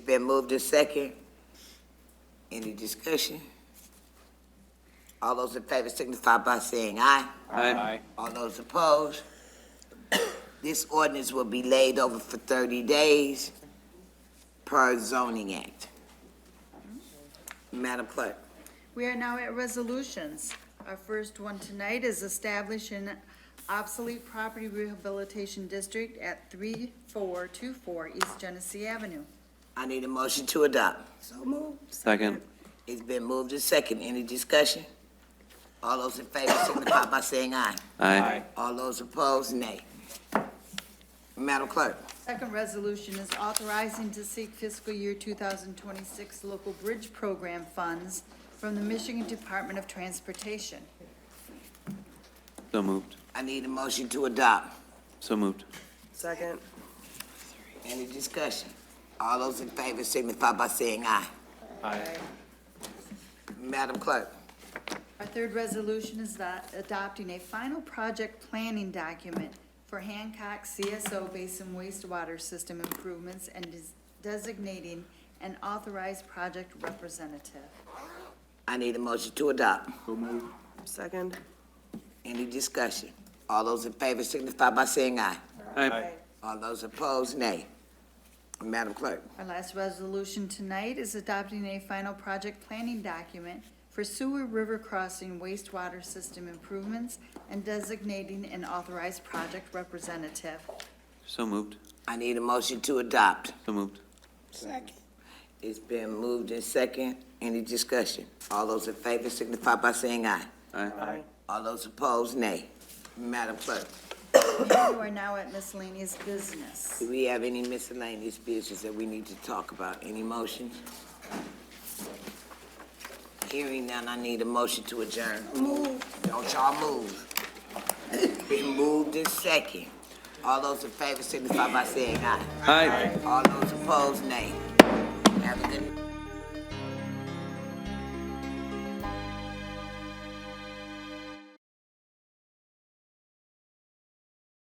Been moved to second. Any discussion? All those in favor signify by saying aye. Aye. All those opposed? This ordinance will be laid over for thirty days per zoning act. Madam Clerk, We are now at resolutions. Our first one tonight is establish an obsolete property rehabilitation district at 3424 East Genesee Avenue. I need a motion to adopt. Second. It's been moved to second. Any discussion? All those in favor signify by saying aye. Aye. All those opposed, nay. Madam Clerk, Second resolution is authorizing to seek fiscal year 2026 local bridge program funds from the Michigan Department of Transportation. So moved. I need a motion to adopt. So moved. Second. Any discussion? All those in favor signify by saying aye. Aye. Madam Clerk, Our third resolution is that adopting a final project planning document for Hancock CSO Basin wastewater system improvements and des- designating an authorized project representative. I need a motion to adopt. Second. Any discussion? All those in favor signify by saying aye. Aye. All those opposed, nay. Madam Clerk, Our last resolution tonight is adopting a final project planning document for sewer river crossing wastewater system improvements and designating an authorized project representative. So moved. I need a motion to adopt. So moved. It's been moved in second. Any discussion? All those in favor signify by saying aye. Aye. All those opposed, nay. Madam Clerk, We are now at miscellaneous business. do we have any miscellaneous business that we need to talk about? Any motions? Hearing none, I need a motion to adjourn. Move. Don't y'all move. Been moved in second. All those in favor signify by saying aye. Aye. All those opposed, nay. Have a good